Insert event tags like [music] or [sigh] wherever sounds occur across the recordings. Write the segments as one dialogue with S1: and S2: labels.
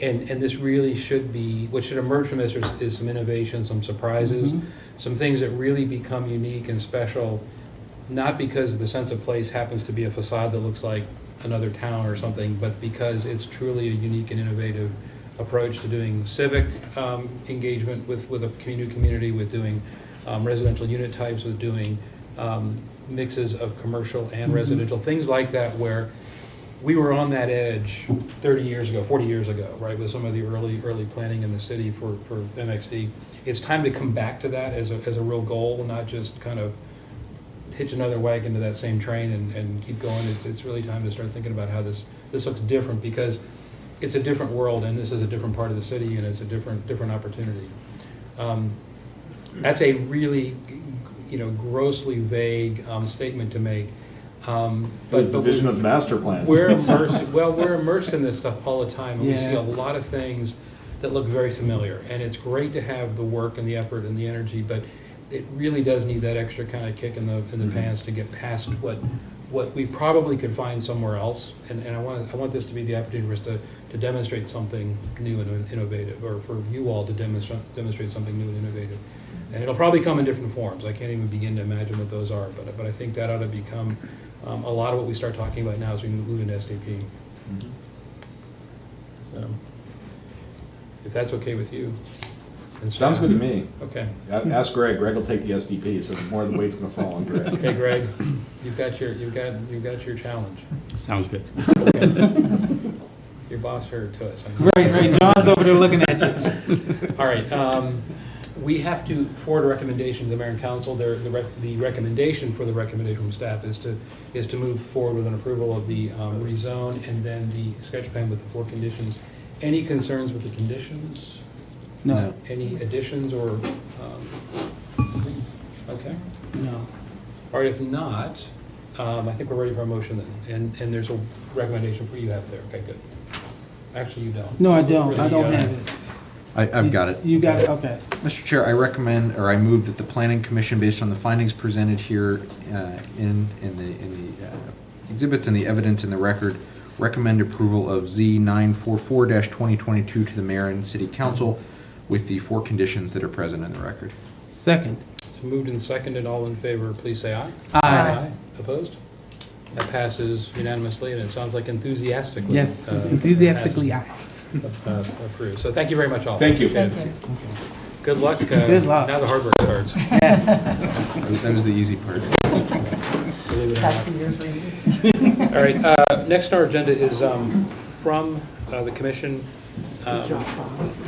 S1: And, and this really should be, what should emerge from this is, is some innovation, some surprises,
S2: Mhm.
S1: some things that really become unique and special, not because the sense of place happens to be a facade that looks like another town or something, but because it's truly a unique and innovative approach to doing civic um, engagement with, with a community, community with doing um, residential unit types, with doing um, mixes of commercial and
S2: Mhm.
S1: residential, things like that where we were on that edge 30 years ago, 40 years ago, right, with some of the early, early planning in the city for, for MXD. It's time to come back to that as a, as a real goal, not just kind of hitch another wagon to that same train and, and keep going. It's, it's really time to start thinking about how this, this looks different because it's a different world and this is a different part of the city and it's a different, different opportunity. Um, that's a really, you know, grossly vague um, statement to make. Um,
S3: It was
S1: but
S3: the
S1: but we-
S3: vision of the master plan. [laughs]
S1: we're immersed, well, we're immersed in this stuff all the time, and we see a
S2: Yeah.
S1: lot of things that look very familiar. And it's great to have the work and the effort and the energy, but it really does need that extra kind of kick in the, in the
S3: Mhm.
S1: pants to get past what, what we probably could find somewhere else. And, and I want, I want this to be the opportunity for us to, to demonstrate something new and innovative, or for you all to demonstrate, demonstrate something new and innovative. And it'll probably come in different forms. I can't even begin to imagine what those are, but, but I think that ought to become um, a lot of what we start talking about now as we move into SDP.
S3: Mhm.
S1: So, if that's okay with you. and
S3: Sounds good to
S1: staff.
S3: me.
S1: Okay.
S3: A- Ask Greg, Greg will take the SDP, so more of the weight's gonna fall on Greg.
S1: Okay, Greg, you've got your, you've got, you've got your challenge.
S4: Sounds good.
S1: Your boss heard to us. I know.
S2: Right, right, John's over there looking at you.
S1: All right, um, we have to forward a recommendation to the mayor and council. Their, the rec- the recommendation for the recommendation from staff is to, is to move forward with an approval of the um, rezone and then the sketch plan with the four conditions. Any concerns with the conditions?
S2: No,
S1: Any additions or, um, okay.
S2: no.
S1: All right, if not, um, I think we're ready for a motion then. And, and there's a recommendation for you have there. Okay, good. Actually, you don't.
S2: No, I don't, I don't
S1: Really, uh,
S2: have it.
S5: I, I've got it.
S2: You got it, okay.
S5: Mr. Chair, I recommend, or I move that the planning commission, based on the findings presented here uh, in, in the, in the uh, exhibits and the evidence in the record, recommend approval of Z nine four four twenty twenty-two to the mayor and city council with the four conditions that are present in the record.
S2: Second.
S1: It's moved and seconded. All in favor, please say aye.
S2: Aye.
S1: Opposed? That passes unanimously, and it sounds like enthusiastically.
S2: Yes,
S1: uh,
S2: enthusiastically, aye.
S1: passes, uh, Approved. So thank you very much all.
S3: Thank you.
S1: Appreciate it. Good luck. uh,
S2: Good luck.
S1: Now the hard work starts.
S2: Yes.
S5: That was- that was the easy part.
S1: believe it or
S6: Past
S1: not.
S6: the years, we
S1: All right, uh, next on our agenda is um, from uh, the commission. um,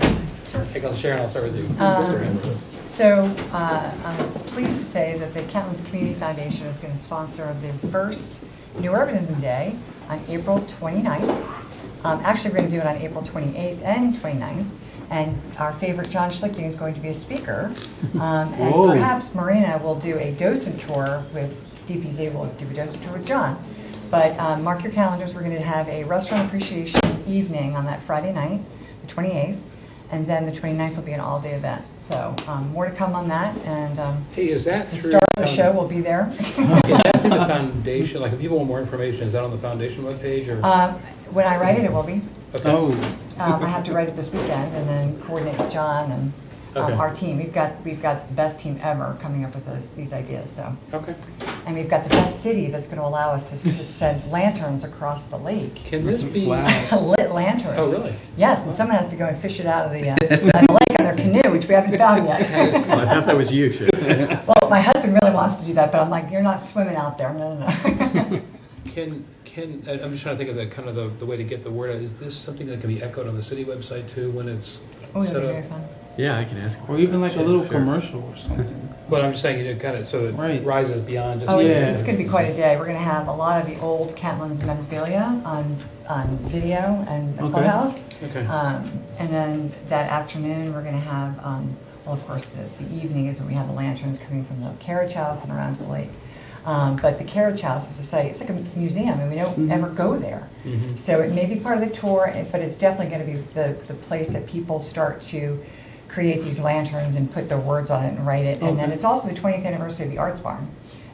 S1: I guess Sharon, I'll start with you.
S6: Um, So uh, I'm pleased to say that the Kentlands Community Foundation is going to sponsor the first New Urbanism Day on April 29th. Um, Actually, we're going to do it on April 28th and 29th. And our favorite John Schlichting is going to be a speaker. Um, And
S2: Whoa.
S6: perhaps Marina will do a docent tour with, DPZ will do a docent tour with John. But um, mark your calendars, we're going to have a restaurant appreciation evening on that Friday night, the 28th. And then the 29th will be an all-day event. So um, more to come on that, and um,
S1: Hey, is that
S6: the
S1: through?
S6: star of the
S1: um,
S6: show will be there.
S1: Is that through the foundation? Like, if people want more information, is that on the foundation webpage or?
S6: Um, When I write it, it will be.
S1: Okay.
S2: Oh,
S6: Um, I have to write it this weekend and then coordinate with John and
S1: Okay.
S6: um, our team. We've got, we've got the best team ever coming up with this- these ideas, so.
S1: Okay.
S6: And we've got the best city that's going to allow us to s- to send lanterns across the lake, [laughs]
S1: Can this be?
S2: Wow.
S6: lit lanterns.
S1: Oh, really?
S6: Yes, and someone has to go and fish it out of the, uh, [laughs] out of the lake on their canoe, which we haven't found
S1: [laughs]
S6: yet.
S4: I thought that was you, Sharon.
S6: Well, my husband really wants to do that, but I'm like, you're not swimming out there, no, [laughs] no, no.
S1: Can, can, I- I'm just trying to think of the, kind of the, the way to get the word out. Is this something that can be echoed on the city website too when it's
S6: Oh, that'd
S1: set
S6: be very
S1: up?
S6: fun.
S4: Yeah, I can ask.
S2: or even like a little
S4: Sure.
S2: commercial or something.
S1: But I'm just saying, you know, kind of, so it
S2: Right.
S1: rises beyond just.
S6: Oh, it's,
S2: Yeah.
S6: it's going to be quite a day. We're going to have a lot of the old Catlin's memorabilia on, on video and the
S2: Okay.
S6: clubhouse.
S1: Okay.
S6: Um, and then that afternoon, we're going to have, um, well, of course, the, the evening is when we have the lanterns coming from the carriage house and around the lake. Um, but the carriage house is a site, it's like a museum, and we don't
S2: Mm-hmm.
S6: ever go there.
S1: Mhm.
S6: So it may be part of the tour, eh, but it's definitely going to be the, the place that people start to create these lanterns and put their words on it and write it. And then
S2: Okay.
S6: it's also the 20th anniversary of the Arts Barn.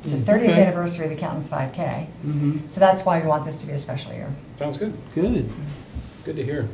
S6: It's the
S2: Mm.
S6: 30th
S2: Okay.
S6: anniversary of the Countess 5K.
S2: Mhm.
S6: So that's why we want this to be a special year.
S1: Sounds good.
S2: Good.
S1: Good to hear.